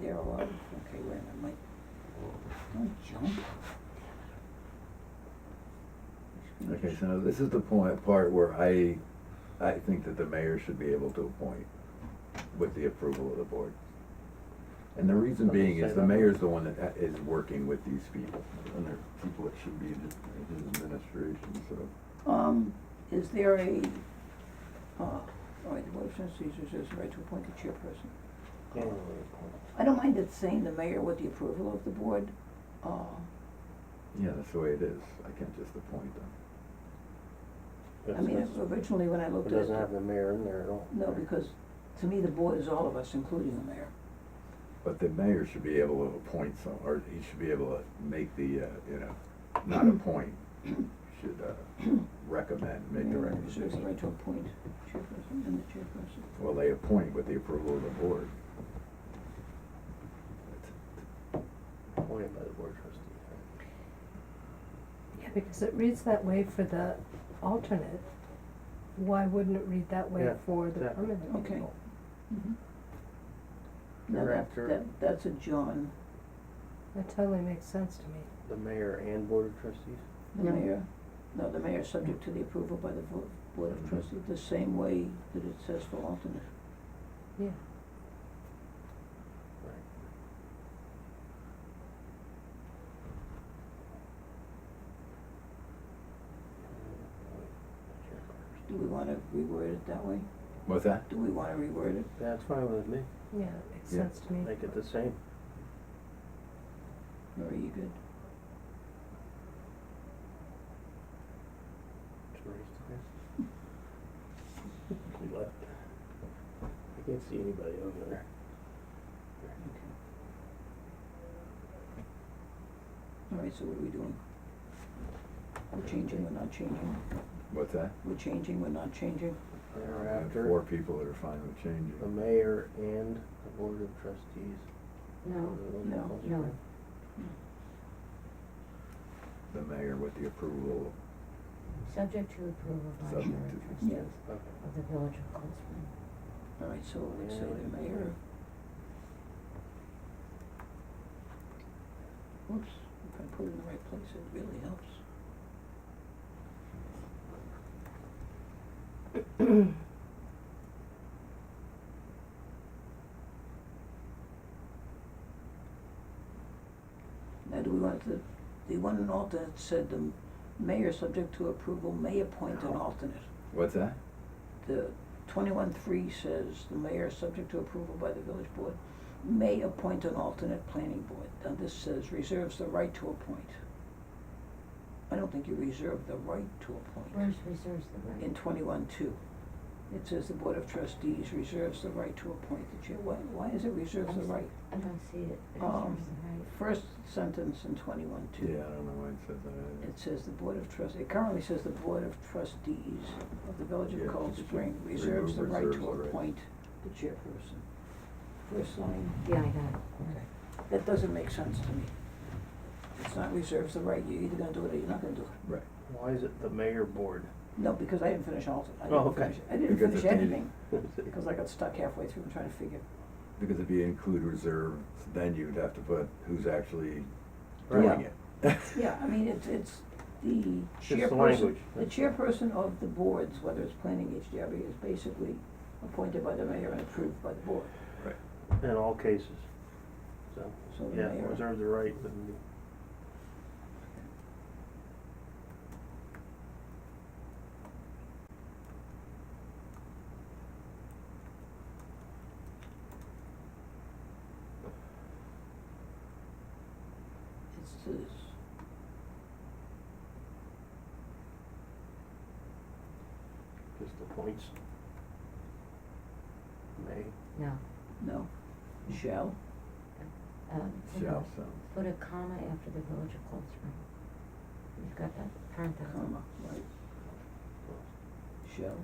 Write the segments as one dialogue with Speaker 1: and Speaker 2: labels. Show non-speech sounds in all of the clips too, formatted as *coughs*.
Speaker 1: there alone. Okay, wait, I'm like, don't jump.
Speaker 2: Okay, so this is the point, part where I, I think that the mayor should be able to appoint with the approval of the board. And the reason
Speaker 3: Let me
Speaker 2: being
Speaker 3: say
Speaker 2: is the
Speaker 3: that.
Speaker 2: mayor's the one that ha- is working with these people, and they're people that should be in his, in his administration, so.
Speaker 1: Um, is there a, uh, all right, the motion seizes is right to appoint the chairperson. I don't mind it saying the mayor with the approval of the board, uh,
Speaker 2: Yeah, that's the way it is, I can't just appoint them.
Speaker 1: I mean, originally when I looked
Speaker 3: It
Speaker 1: at it.
Speaker 3: doesn't have the mayor in there at all.
Speaker 1: No, because to me, the board is all of us, including the mayor.
Speaker 2: But the mayor should be able to appoint some, or he should be able to make the, uh, you know, not appoint, should, uh, recommend, make
Speaker 3: Mm-hmm.
Speaker 2: the
Speaker 1: Mayor reserves the
Speaker 2: recommendation.
Speaker 1: right to appoint chairperson and the chairperson.
Speaker 2: Well, they appoint with the approval of the board.
Speaker 3: Appointed by the board trustee.
Speaker 4: Yeah, because it reads that way for the alternate. Why wouldn't it read that way
Speaker 3: Yeah,
Speaker 4: for the
Speaker 3: exactly.
Speaker 4: permanent
Speaker 1: Okay.
Speaker 4: people?
Speaker 1: Mhm. Now,
Speaker 3: You're
Speaker 1: that,
Speaker 3: after-
Speaker 1: that, that's a John,
Speaker 4: That totally makes sense to me.
Speaker 3: The mayor and board of trustees?
Speaker 1: the
Speaker 4: No.
Speaker 1: mayor, no, the mayor is subject
Speaker 3: Mm.
Speaker 1: to the approval by the vo- board of
Speaker 3: Mm-hmm.
Speaker 2: Mhm.
Speaker 1: trustees, the same way that it says for alternate.
Speaker 4: Yeah,
Speaker 3: Right.
Speaker 1: Do we wanna reword it that way?
Speaker 2: What's that?
Speaker 1: Do we wanna reword it?
Speaker 3: That's fine with me.
Speaker 4: yeah, it makes
Speaker 2: Yeah.
Speaker 4: sense to me.
Speaker 3: Make it the same.
Speaker 1: Or are you
Speaker 3: *laughs*
Speaker 1: good?
Speaker 3: He left. I can't see anybody over there.
Speaker 1: Okay. All right, so what are we doing? We're changing, we're not changing,
Speaker 2: What's that?
Speaker 1: we're changing, we're not changing,
Speaker 2: Four
Speaker 3: Thereafter,
Speaker 2: people that are fine with
Speaker 3: the
Speaker 2: changing.
Speaker 3: mayor and the board of trustees.
Speaker 5: No,
Speaker 3: Is it
Speaker 1: No,
Speaker 3: all
Speaker 5: no.
Speaker 3: different?
Speaker 2: The mayor with the approval
Speaker 5: subject to approval by the
Speaker 2: Subject
Speaker 5: board
Speaker 2: to-
Speaker 5: of trustees
Speaker 3: Okay.
Speaker 5: of the village of Cold Spring.
Speaker 1: all right, so let's say the mayor. Oops, if I put it in the right place, it really helps. *coughs* Now, do we want the, the one and alternate said the mayor, subject to approval, may appoint an alternate.
Speaker 2: What's that?
Speaker 1: The twenty-one three says the mayor, subject to approval by the village board, may appoint an alternate planning board. Now, this says reserves the right to appoint. I don't think you reserve the right to appoint.
Speaker 5: Where's reserves the right?
Speaker 1: In twenty-one two, it says the board of trustees reserves the right to appoint the chair. Why, why is it reserves the right?
Speaker 5: I don't see it, it
Speaker 1: Um,
Speaker 5: reserves the right.
Speaker 1: First sentence in twenty-one two.
Speaker 2: Yeah, I don't know why it says that.
Speaker 1: It says the Board of Trustees, it currently says the Board of Trustees of the Village
Speaker 2: Yeah,
Speaker 1: of Cold
Speaker 2: just
Speaker 1: Spring
Speaker 2: remove
Speaker 1: reserves the right
Speaker 2: reserves
Speaker 1: to
Speaker 2: the right.
Speaker 1: appoint the chairperson. First line,
Speaker 5: Yeah, I got
Speaker 1: okay, that doesn't make sense to me. It's not reserves the right, you're either gonna do it or you're not gonna do it.
Speaker 2: Right.
Speaker 3: Why is it the mayor board?
Speaker 1: *laughs* No, because I didn't finish all, I
Speaker 3: Oh,
Speaker 1: didn't
Speaker 3: okay.
Speaker 1: finish, I didn't
Speaker 2: Because
Speaker 1: finish
Speaker 2: it's needed.
Speaker 1: anything, because I got stuck halfway through and trying to figure.
Speaker 2: Because if you include reserves, then you'd have to put who's actually
Speaker 3: Right.
Speaker 2: doing it.
Speaker 1: Yeah, I mean, it's, it's the
Speaker 3: It's the
Speaker 1: chairperson,
Speaker 3: language.
Speaker 1: the chairperson of the boards, whether it's planning HDRB, is basically appointed by the mayor and approved by the board.
Speaker 2: *laughs* Right.
Speaker 3: In all cases. So,
Speaker 1: So the
Speaker 3: yeah,
Speaker 1: mayor-
Speaker 3: reserve the right, wouldn't be-
Speaker 1: It says.
Speaker 3: just the points. May,
Speaker 5: it, no.
Speaker 1: No, shall,
Speaker 5: Um, put a-
Speaker 2: Shall sound.
Speaker 5: Put a comma after the village of Cold Spring. You've got that parenthesis.
Speaker 1: comma, right, shall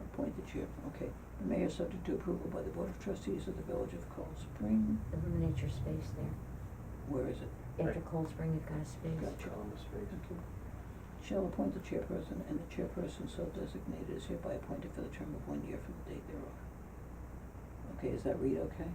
Speaker 1: appoint the chair, okay. The mayor subject to approval by the Board of Trustees of the Village of Cold Spring,
Speaker 5: Eliminate your space there.
Speaker 1: where is it?
Speaker 5: After
Speaker 3: Right.
Speaker 5: Cold Spring, you've got a space.
Speaker 1: Gotcha.
Speaker 3: column of space.
Speaker 1: Thank you. Shall appoint the chairperson, and the chairperson so designated is hereby appointed for the term of one year from the date thereof. Okay, is that read okay?